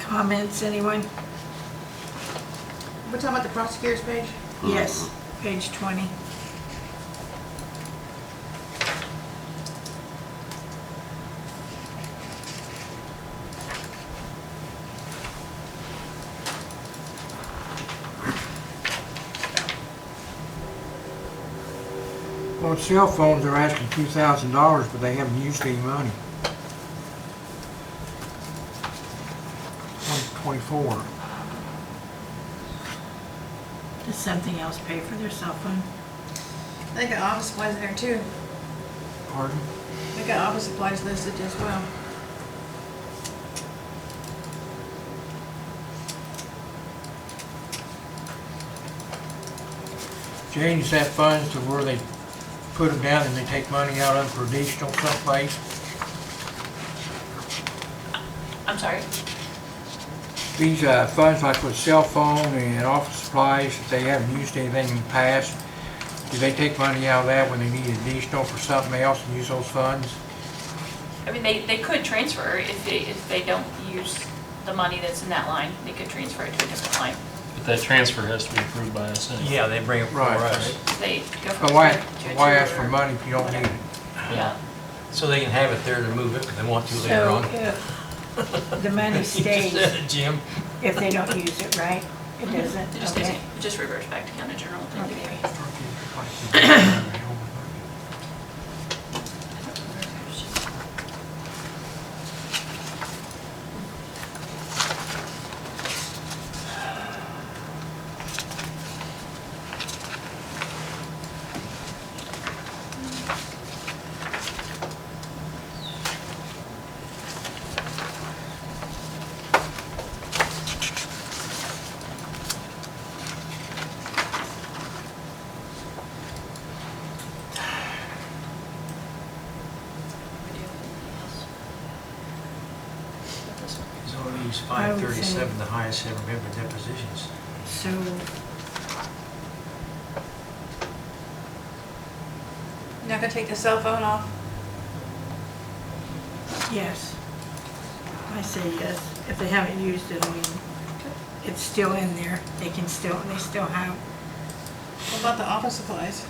comments, anyone? We're talking about the prosecutor's page? Yes, page 20. On cell phones, they're asking two thousand dollars, but they haven't used any money. One twenty-four. Does something else pay for their cell phone? I think the office supplies in there too. Pardon? I think the office supplies listed as well. Change that funds to where they put them down and they take money out of for additional someplace. I'm sorry? These uh, funds like with cell phone and office supplies, if they haven't used anything in the past, do they take money out of that when they need additional for something else and use those funds? I mean, they, they could transfer if they, if they don't use the money that's in that line, they could transfer it to a different line. But that transfer has to be approved by us anyway. Yeah, they bring it before Right. us. They go from. But why, two to why two ask for or- money if you don't need it? Yeah, So they can have it there to move it if they want to later on. So if uh, the money You just stays, said it, Jim. if they don't use it, right? It doesn't? it just, Okay. it just reverts back to county general. thing to Okay. do. He's only used I would say- 537, the highest ever member depositions. So, You're Not gonna take the cell phone off? yes. I say yes. If they haven't used it, I mean, it's still in there. They can still, they still have, What about the office supplies?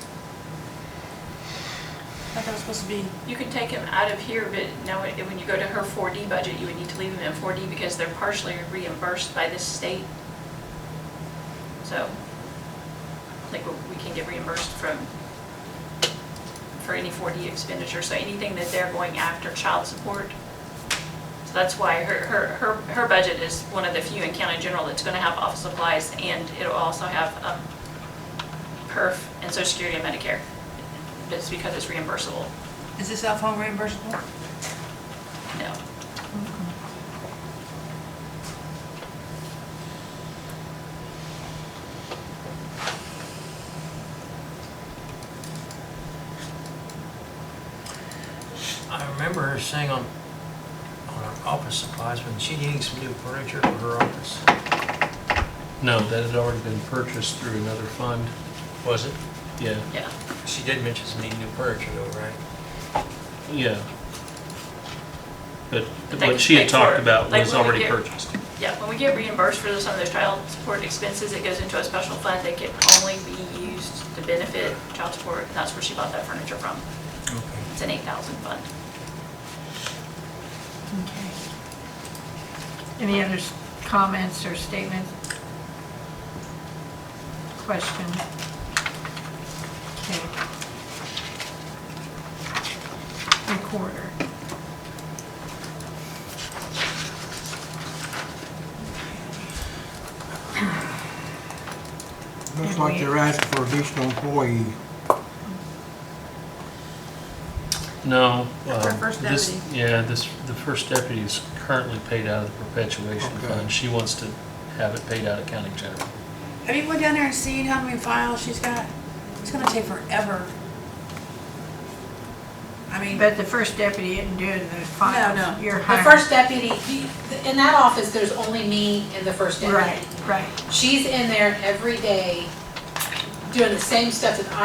I thought it was supposed to be, You could take them out of here, but now it- when you go to her 4D budget, you would need to leave them in 4D because they're partially reimbursed by this state. So, I think we- we can get reimbursed from, for any 4D expenditure, so anything that they're going after child support. So that's why her, her, her her budget is one of the few in county general that's gonna have office supplies and it'll also have um, perf and social security and Medicare. It's because it's reimbursable. is the cell phone reimbursable? No. I remember her saying on, on her office supplies, when she needed some new furniture for her office. No, that had already been purchased through another fund. Was it? Yeah, Yeah, She did mention some needing new furniture though, right? yeah. But But they what she can pay had for talked it. about Like was when we already get- purchased. yeah, when we get reimbursed for some of those child support expenses, it goes into a special fund that can only be used to benefit child support, and that's where she bought that furniture from. Okay. It's an eight thousand fund. okay. Any other s- comments or statements? Question? Okay. Recorder. Looks like they're asking for additional employee. No. Not for um, first this- deputy. Yeah, this, the first deputy is currently paid out of the perpetuation Okay. fund. She wants to have it paid out of county general. Have you went down there and seen how many files she's got? It's gonna take forever. I mean, But the first deputy didn't do it in the no, files. no. You're The hiring. first deputy, he- in that office, there's only me and the first deputy. Right, right. She's in there every day doing the same stuff that